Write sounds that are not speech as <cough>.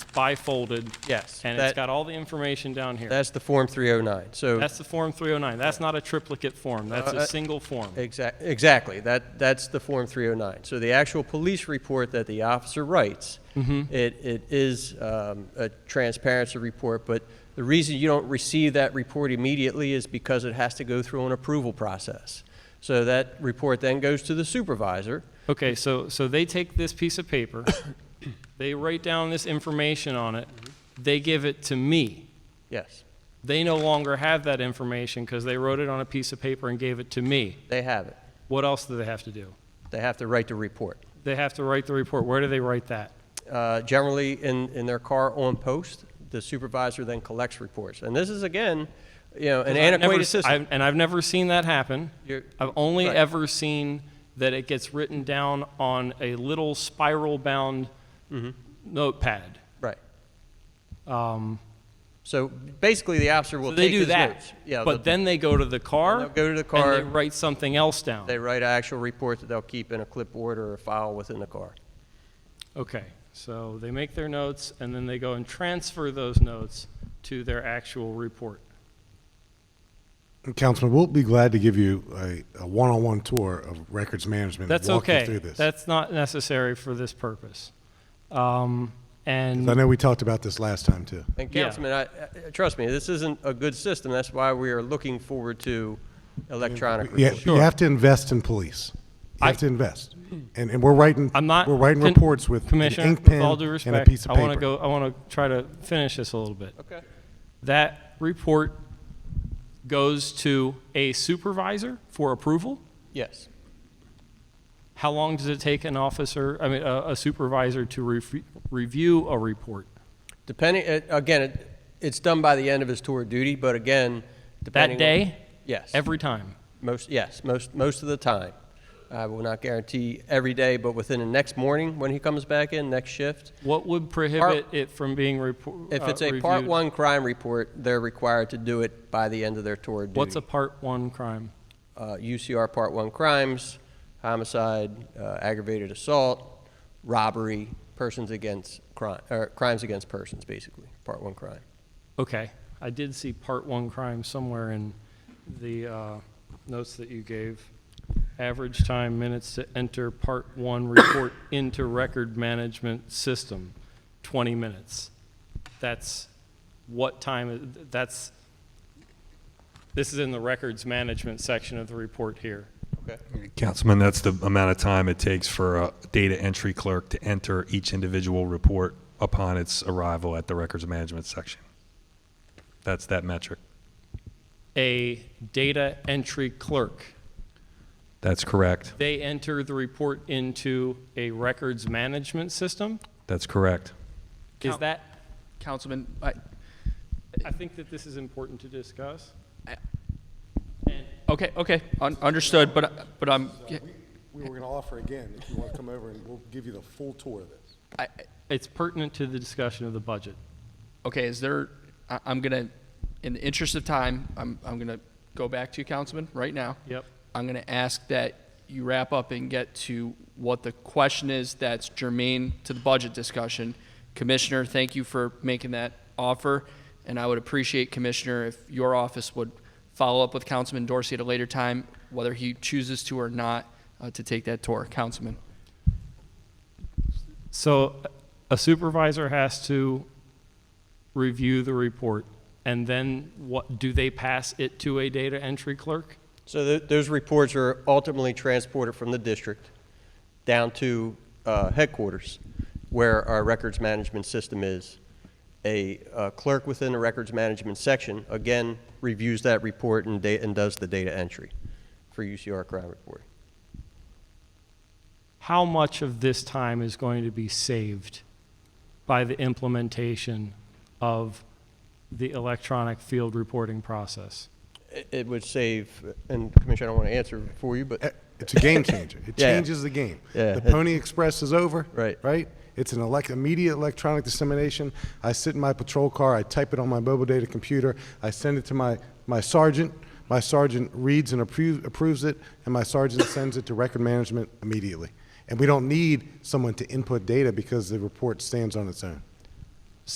bifolded, Yes. and it's that- got all the information down here. That's the Form 309. So, That's the Form 309. That's not a triplicate form. That's Uh, uh, a single form. Exac- exactly, that, that's the Form 309. So the actual police report that the officer writes, Mm-hmm. it, it is um, a transparency report, but the reason you don't receive that report immediately is because it has to go through an approval process. So that report then goes to the supervisor, Okay, so, so they take this piece of paper, <coughs> they write down this information on it, they give it to me. yes, They no longer have that information because they wrote it on a piece of paper and gave it to me. they have it. What else do they have to do? They have to write the report. They have to write the report. Where do they write that? uh, generally in, in their car on post. The supervisor then collects reports. And this is, again, you know, an I've never antiquated s- system. I've- And I've never seen that happen. You're- I've only Right. ever seen that it gets written down on a little spiral-bound Mm-hmm. notepad. Right. Um, So basically, the officer will So they take do his that, notes. Yeah, but the- then they go to the car. They'll go to the And they car. write something else down. They write an actual report that they'll keep in a clipboard or a file within the car. Okay, so they make their notes, and then they go and transfer those notes to their actual report. And Councilman, we'll be glad to give you a, a one-on-one tour of records management. and That's walk you okay. through this. That's not necessary for this purpose. Um, And. I know we talked about this last time too. And Yeah. Councilman, I, I- trust me, this isn't a good system. That's why we are looking forward to electronic Yeah, reports. you have to invest in police. You I- have to invest, and, and we're writing. I'm not. We're writing Con- reports with an Commissioner, ink pen with all due and a respect, piece of I want to paper. go. I want to try to finish this a little bit. Okay. That report goes to a supervisor for approval. Yes. How long does it take an officer, I mean, a, a supervisor to re- review a report? Depending, it- again, it- it's done by the end of his tour of duty, but again, depending. That on- day, Yes. every time. Most, yes, most, most of the time. I will not guarantee every day, but within the next morning when he comes back in, next shift. What would prohibit it from being report? If uh, it's a part reviewed? one crime report, they're required to do it by the end of their tour of duty. What's a part one crime? Uh, UCR part one crimes, homicide, uh, aggravated assault, robbery, persons against crime, or crimes against persons, basically, part one crime. Okay, I did see part one crime somewhere in the uh, notes that you gave. Average time minutes to enter part one report <coughs> into record management system, 20 minutes. That's what time, that's, this is in the records management section of the report here. Okay. Councilman, that's the amount of time it takes for a data entry clerk to enter each individual report upon its arrival at the records management section. That's that metric. A data entry clerk, That's correct. they enter the report into a records management system? That's correct. Is Count- that Councilman, I, I think that this is important to discuss. I- And okay, okay, un- understood, but, but I'm, We were going to offer again if you want to come over, and we'll give you the full tour of this. I, it's pertinent to the discussion of the budget. okay, is there, I, I'm gonna, in the interest of time, I'm, I'm gonna go back to you, Councilman, right now. Yep. I'm gonna ask that you wrap up and get to what the question is that's germane to the budget discussion. Commissioner, thank you for making that offer, and I would appreciate, Commissioner, if your office would follow up with Councilman Dorsey at a later time, whether he chooses to or not, uh, to take that tour. Councilman? So a supervisor has to review the report, and then what, do they pass it to a data entry clerk? So th- those reports are ultimately transported from the district down to uh, headquarters, where our records management system is. A uh, clerk within the records management section, again, reviews that report and da- and does the data entry for UCR crime reporting. How much of this time is going to be saved by the implementation of the electronic field reporting process? It- It would save, and Commissioner, I don't want to answer for you, but, eh, It's a game changer. It <laughs> Yeah. changes the game. Yeah, the it- Pony Express is over. Right. Right. It's an elect- immediate electronic dissemination. I sit in my patrol car. I type it on my mobile data computer. I send it to my, my sergeant. My sergeant reads and approves, approves it, and <laughs> my sergeant sends it to record management immediately. And we don't need someone to input data because the report stands on its own.